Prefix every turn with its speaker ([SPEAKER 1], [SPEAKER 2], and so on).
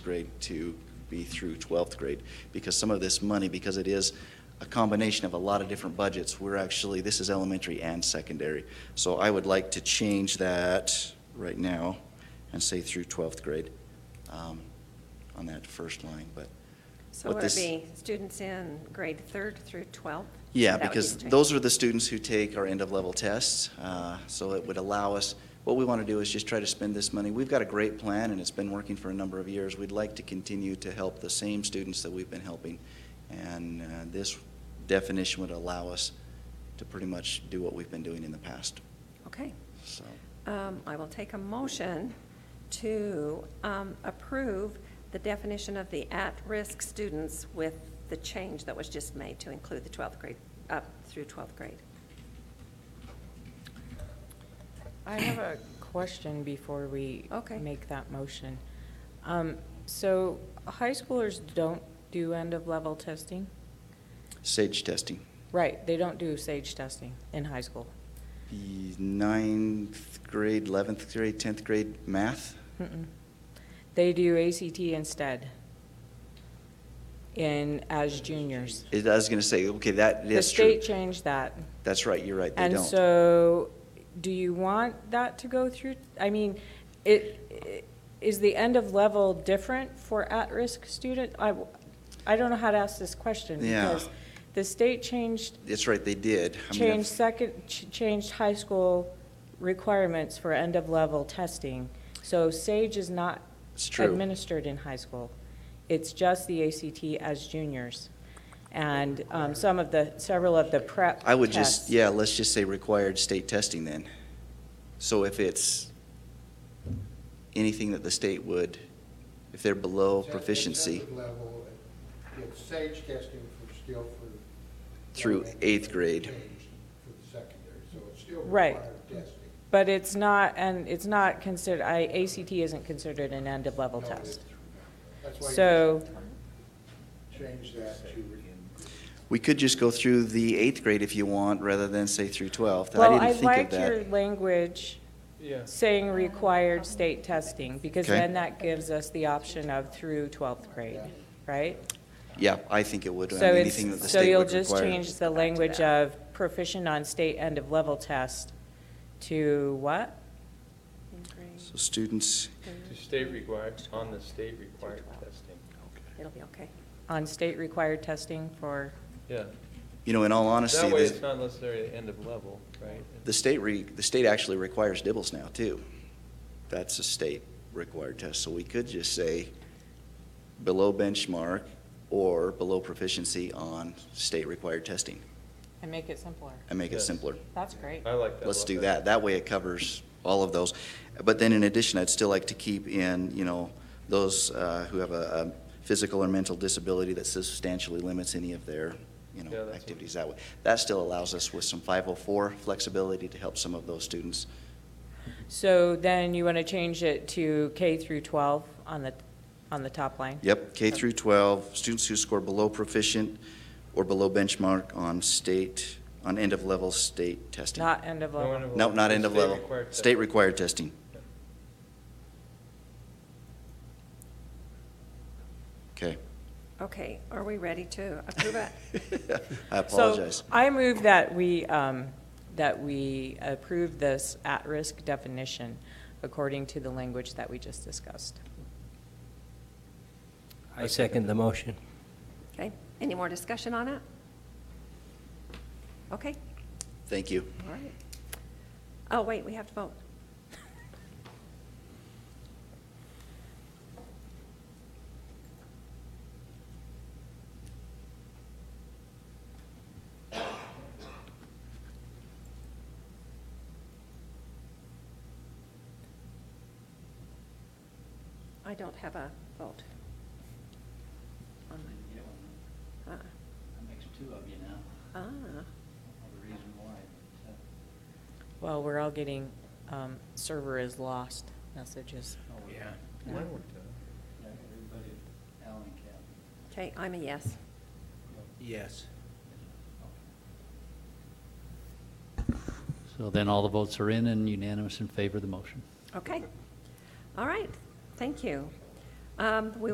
[SPEAKER 1] grade to be through 12th grade. Because some of this money, because it is a combination of a lot of different budgets, we're actually, this is elementary and secondary. So I would like to change that right now and say through 12th grade um, on that first line, but,
[SPEAKER 2] So
[SPEAKER 1] what
[SPEAKER 2] would it
[SPEAKER 1] this-
[SPEAKER 2] be students in grade third through 12th?
[SPEAKER 1] yeah,
[SPEAKER 2] That would
[SPEAKER 1] because
[SPEAKER 2] be the change.
[SPEAKER 1] those are the students who take our end-of-level tests. uh, So it would allow us, what we want to do is just try to spend this money. We've got a great plan, and it's been working for a number of years. We'd like to continue to help the same students that we've been helping. And uh, this definition would allow us to pretty much do what we've been doing in the past,
[SPEAKER 2] Okay.
[SPEAKER 1] so.
[SPEAKER 2] Um, I will take a motion to um, approve the definition of the at-risk students with the change that was just made to include the 12th grade, up through 12th grade.
[SPEAKER 3] I have a question before we
[SPEAKER 2] Okay.
[SPEAKER 3] make that motion. Um, So high schoolers don't do end-of-level testing?
[SPEAKER 1] SAGE testing,
[SPEAKER 3] Right, they don't do SAGE testing in high school.
[SPEAKER 1] The ninth grade, 11th grade, 10th grade math,
[SPEAKER 3] Mm-mm. They do ACT instead in, as juniors.
[SPEAKER 1] It- I was going to say, okay, that
[SPEAKER 3] The
[SPEAKER 1] is true.
[SPEAKER 3] state changed that.
[SPEAKER 1] That's right, you're right, they don't.
[SPEAKER 3] And so, do you want that to go through? I mean, it, i- is the end of level different for at-risk student? I, w- I don't know how to ask this question.
[SPEAKER 1] Yeah.
[SPEAKER 3] because The state changed,
[SPEAKER 1] That's right, they did. I mean,
[SPEAKER 3] changed
[SPEAKER 1] if-
[SPEAKER 3] second, ch- changed high school requirements for end of level testing. So SAGE is not
[SPEAKER 1] It's true.
[SPEAKER 3] administered in high school. It's just the ACT as juniors. And um, some of the, several of the prep
[SPEAKER 1] I would just,
[SPEAKER 3] tests.
[SPEAKER 1] yeah, let's just say required state testing then. So if it's anything that the state would, if they're below
[SPEAKER 4] Second-
[SPEAKER 1] proficiency
[SPEAKER 4] second level, it's SAGE testing for, still for.
[SPEAKER 1] Through eighth grade.
[SPEAKER 4] For the secondary, so it's still
[SPEAKER 3] Right.
[SPEAKER 4] required testing.
[SPEAKER 3] But it's not, and it's not considered, I, ACT isn't considered an end-of-level
[SPEAKER 4] No, it's-
[SPEAKER 3] test.
[SPEAKER 4] That's why you
[SPEAKER 3] So,
[SPEAKER 4] Change that to. re-
[SPEAKER 1] we could just go through the eighth grade if you want, rather than say through 12th.
[SPEAKER 3] well,
[SPEAKER 1] I
[SPEAKER 3] I
[SPEAKER 1] didn't think of
[SPEAKER 3] liked your
[SPEAKER 1] that.
[SPEAKER 3] language saying required state testing, because
[SPEAKER 1] Okay.
[SPEAKER 3] then that gives us the option of through 12th grade, right?
[SPEAKER 1] Yeah, I think it would, I
[SPEAKER 3] So
[SPEAKER 1] mean,
[SPEAKER 3] it's,
[SPEAKER 1] anything that the
[SPEAKER 3] so
[SPEAKER 1] state
[SPEAKER 3] you'll
[SPEAKER 1] would
[SPEAKER 3] just
[SPEAKER 1] require.
[SPEAKER 3] change the language of proficient on state end-of-level test to what?
[SPEAKER 2] In grade
[SPEAKER 1] So students,
[SPEAKER 2] third
[SPEAKER 5] To state required,
[SPEAKER 2] through
[SPEAKER 5] on the
[SPEAKER 2] 12th.
[SPEAKER 5] state required
[SPEAKER 2] Through 12th.
[SPEAKER 5] testing.
[SPEAKER 2] It'll be okay.
[SPEAKER 3] On state required testing for,
[SPEAKER 5] Yeah.
[SPEAKER 1] you know, in all honesty,
[SPEAKER 5] That way
[SPEAKER 1] the-
[SPEAKER 5] it's not necessarily the end of level, right?
[SPEAKER 1] the state re, the state actually requires dibbles now, too. That's a state required test, so we could just say below benchmark or below proficiency on state required testing
[SPEAKER 3] and make it simpler.
[SPEAKER 1] and make it
[SPEAKER 5] Yes.
[SPEAKER 1] simpler.
[SPEAKER 3] That's great.
[SPEAKER 5] I like that. a
[SPEAKER 1] Let's
[SPEAKER 5] lot
[SPEAKER 1] do
[SPEAKER 5] better.
[SPEAKER 1] that. That way it covers all of those. But then in addition, I'd still like to keep in, you know, those uh, who have a, a physical or mental disability that substantially limits any of their, you
[SPEAKER 5] Yeah,
[SPEAKER 1] know,
[SPEAKER 5] that's
[SPEAKER 1] activities that way. That still allows us with some 504 flexibility to help some of those students.
[SPEAKER 3] So then you want to change it to K through 12 on the, on the top line?
[SPEAKER 1] Yep, K through 12, students who score below proficient or below benchmark on state, on end-of-level state testing.
[SPEAKER 3] Not end of
[SPEAKER 5] No end
[SPEAKER 3] level?
[SPEAKER 5] of
[SPEAKER 1] No,
[SPEAKER 5] level,
[SPEAKER 1] not
[SPEAKER 5] just
[SPEAKER 1] end-of-level,
[SPEAKER 5] required
[SPEAKER 1] state
[SPEAKER 5] testing.
[SPEAKER 1] required testing. Okay.
[SPEAKER 2] Okay, are we ready to approve it?
[SPEAKER 1] I apologize.
[SPEAKER 3] So I move that we, um, that we approve this at-risk definition according to the language that we just discussed.
[SPEAKER 6] I second the motion.
[SPEAKER 2] Okay, any more discussion on it? Okay,
[SPEAKER 1] Thank you.
[SPEAKER 2] all right. Oh, wait, we have to vote. I don't have a vote. on my-
[SPEAKER 7] That
[SPEAKER 2] uh-uh.
[SPEAKER 7] makes two of you now.
[SPEAKER 2] Ah,
[SPEAKER 7] The reason why. but,
[SPEAKER 3] Well, we're all getting um, server is lost messages.
[SPEAKER 7] uh, oh,
[SPEAKER 6] Yeah.
[SPEAKER 5] Mine worked out.
[SPEAKER 7] yeah, Everybody, Alan and Kathy.
[SPEAKER 2] okay, I'm a yes.
[SPEAKER 6] Yes.
[SPEAKER 8] So then all the votes are in and unanimous in favor of the motion.
[SPEAKER 2] Okay. All right, thank you. Um, We